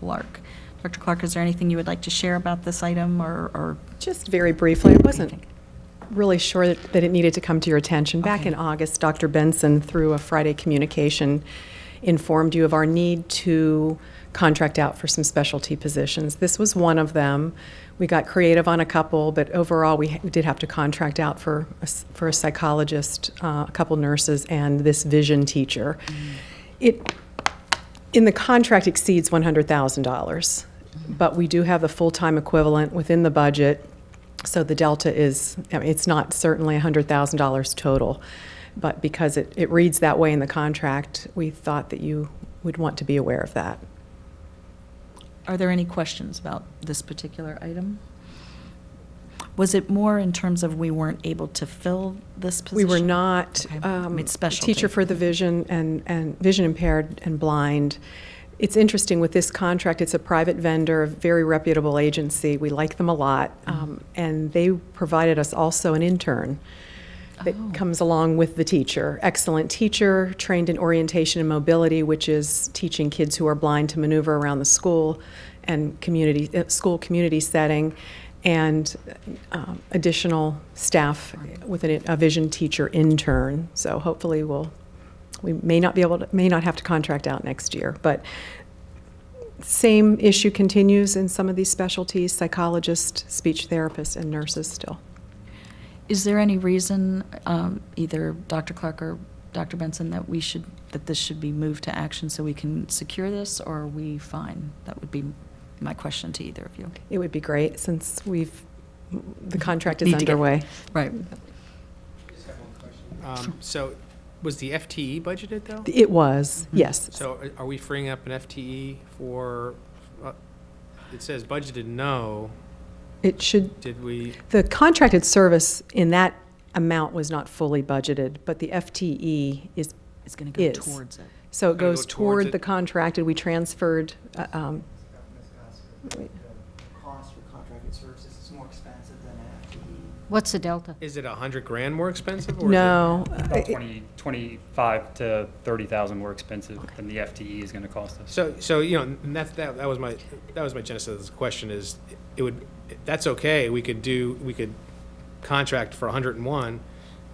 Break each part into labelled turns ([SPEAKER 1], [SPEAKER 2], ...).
[SPEAKER 1] Clark. Dr. Clark, is there anything you would like to share about this item or, or
[SPEAKER 2] Just very briefly, I wasn't
[SPEAKER 1] think?
[SPEAKER 2] really sure that, that it needed to come to your attention. Back in
[SPEAKER 1] Okay.
[SPEAKER 2] August, Dr. Benson, through a Friday communication, informed you of our need to contract out for some specialty positions. This was one of them. We got creative on a couple, but overall, we ha- we did have to contract out for, a s- for a psychologist, uh, a couple nurses, and this vision teacher. It, in the contract exceeds $100,000, but we do have the full-time equivalent within the budget, so the delta is, I mean, it's not certainly $100,000 total, but because it, it reads that way in the contract, we thought that you would want to be aware of that.
[SPEAKER 1] Are there any questions about this particular item? Was it more in terms of we weren't able to fill this
[SPEAKER 2] We
[SPEAKER 1] position?
[SPEAKER 2] were not,
[SPEAKER 1] Okay. I
[SPEAKER 2] um,
[SPEAKER 1] mean, specialty.
[SPEAKER 2] teacher for the vision and, and vision impaired and blind. It's interesting with this contract, it's a private vendor, a very reputable agency. We like them a lot. Um, and they provided us also an intern that
[SPEAKER 1] Oh.
[SPEAKER 2] comes along with the teacher. Excellent teacher, trained in orientation and mobility, which is teaching kids who are blind to maneuver around the school and community, uh, school community setting, and um, additional staff with an, a vision teacher intern. So hopefully we'll, we may not be able to, may not have to contract out next year, but same issue continues in some of these specialties, psychologists, speech therapists, and nurses still.
[SPEAKER 1] Is there any reason, um, either Dr. Clark or Dr. Benson, that we should, that this should be moved to action so we can secure this, or are we fine? That would be my question to either of you.
[SPEAKER 2] It would be great, since we've, the contract is
[SPEAKER 1] Need to get-
[SPEAKER 2] underway.
[SPEAKER 1] Right.
[SPEAKER 3] Um, So, was the FTE budgeted, though?
[SPEAKER 2] It was,
[SPEAKER 1] Mhm.
[SPEAKER 2] yes.
[SPEAKER 3] So uh, are- are we freeing up an FTE for, uh, it says budgeted no,
[SPEAKER 2] It should,
[SPEAKER 3] did we,
[SPEAKER 2] the contracted service in that amount was not fully budgeted, but the FTE is,
[SPEAKER 1] It's going to go
[SPEAKER 2] Is.
[SPEAKER 1] towards it.
[SPEAKER 2] so it
[SPEAKER 3] Gonna go
[SPEAKER 2] goes
[SPEAKER 3] towards
[SPEAKER 2] toward
[SPEAKER 3] it.
[SPEAKER 2] the contracted, we transferred, uh, um,
[SPEAKER 4] Ms. Gossett, the cost for contracted services is more expensive than an FTE.
[SPEAKER 5] What's the delta?
[SPEAKER 3] is it a 100 grand more expensive? or is it-
[SPEAKER 2] no. uh,
[SPEAKER 6] About
[SPEAKER 2] it-
[SPEAKER 6] 20, 25 to 30,000 more expensive than the FTE is going to cost us.
[SPEAKER 3] So, so, you know, and that's, that, that was my, that was my genesis of this question is, it would, that's okay, we could do, we could contract for 101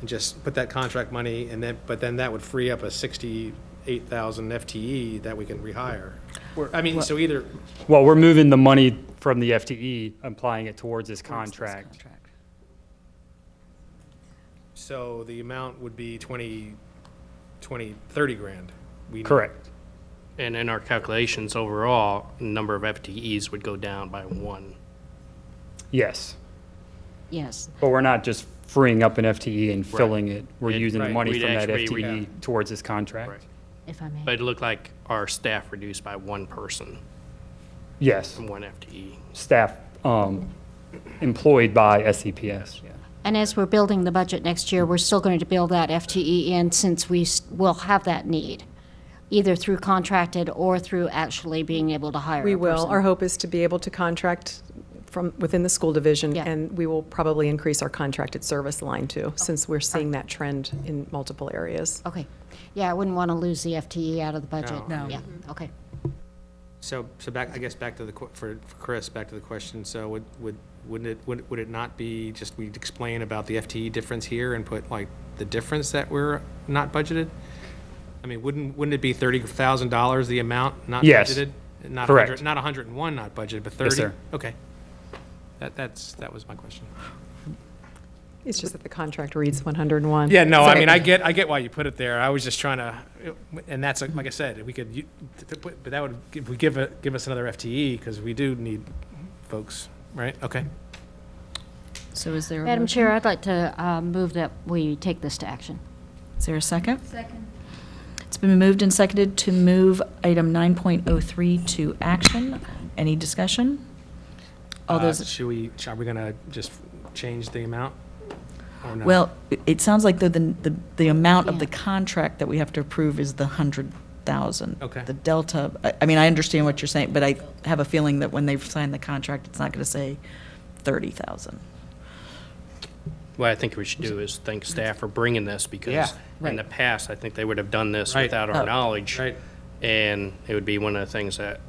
[SPEAKER 3] and just put that contract money and then, but then that would free up a 68,000 FTE E that we can rehire. We're- I mean, so either,
[SPEAKER 6] Well, we're moving the money from the FTE, applying it towards this
[SPEAKER 1] towards this
[SPEAKER 6] contract.
[SPEAKER 1] contract.
[SPEAKER 3] So the amount would be 20, 20, 30 grand. We need-
[SPEAKER 6] Correct.
[SPEAKER 7] And in our calculations overall, number of FTEs would go down by one.
[SPEAKER 6] Yes.
[SPEAKER 5] Yes.
[SPEAKER 6] But we're not just freeing up an FTE and filling it. We're
[SPEAKER 7] It-
[SPEAKER 6] using the
[SPEAKER 7] right.
[SPEAKER 6] money
[SPEAKER 7] We'd
[SPEAKER 6] from that
[SPEAKER 7] actually- we'd-
[SPEAKER 6] FTE towards this contract.
[SPEAKER 7] Right.
[SPEAKER 5] If I may.
[SPEAKER 7] But it looked like our staff reduced by one person,
[SPEAKER 6] Yes.
[SPEAKER 7] from one E. FTE.
[SPEAKER 6] Staff um, employed by E SCPS. Yeah.
[SPEAKER 5] And as we're building the budget next year, we're still going to build that FTE in since we s- will have that need, either through contracted or through actually being able to hire
[SPEAKER 2] We
[SPEAKER 5] a
[SPEAKER 2] will.
[SPEAKER 5] person.
[SPEAKER 2] Our hope is to be able to contract from, within the school division,
[SPEAKER 5] Yeah.
[SPEAKER 2] and we will probably increase our contracted service line too, since we're seeing that trend in multiple areas.
[SPEAKER 5] Okay. Yeah, I wouldn't want to lose the FTE out of the budget.
[SPEAKER 1] No. No.
[SPEAKER 5] Yeah, okay.
[SPEAKER 3] So, so back, I guess, back to the, que- for for Chris, back to the question, so would, would, wouldn't it, would, would it not be just we'd explain about the FTE difference here and put like the difference that we're not budgeted? I mean, wouldn't, wouldn't it be $30,000, the amount not
[SPEAKER 6] Yes.
[SPEAKER 3] budgeted? Not
[SPEAKER 6] Correct.
[SPEAKER 3] 100 Not 101 not budgeted, but 30?
[SPEAKER 6] Yes, sir.
[SPEAKER 3] Okay. That, that's, that was my question.
[SPEAKER 2] It's just that the contract reads 101.
[SPEAKER 3] Yeah, no, I
[SPEAKER 2] So-
[SPEAKER 3] mean, I get, I get why you put it there. I was just trying to, and that's, like like I said, we could, u- t- t- put- but that would, give- we give, a- give us another FTE, because we do need folks, right? Okay.
[SPEAKER 1] So is there? a
[SPEAKER 5] Madam
[SPEAKER 1] motion?
[SPEAKER 5] Chair, I'd like to uh, move that we take this to action.
[SPEAKER 1] Is there a second? Second. It's been moved and seconded to move item 9.03 to action. Any discussion? All
[SPEAKER 3] Uh,
[SPEAKER 1] those,
[SPEAKER 3] Should we, are we gonna just change the amount? or no?
[SPEAKER 1] well, it- it sounds like the, the, the amount of the
[SPEAKER 5] Yeah.
[SPEAKER 1] contract that we have to approve is the 100,000.
[SPEAKER 3] Okay.
[SPEAKER 1] The delta, I, I mean, I understand what you're saying, but I have a feeling that when they've signed the contract, it's not going to say 30,000.
[SPEAKER 7] What I think we should do is thank staff for bringing this,
[SPEAKER 3] Yeah.
[SPEAKER 7] because
[SPEAKER 1] Right.
[SPEAKER 7] in the past, I think they would have done this
[SPEAKER 3] Right.
[SPEAKER 7] without
[SPEAKER 1] Oh.
[SPEAKER 7] our knowledge.
[SPEAKER 3] Right.
[SPEAKER 7] And it would be one of the things that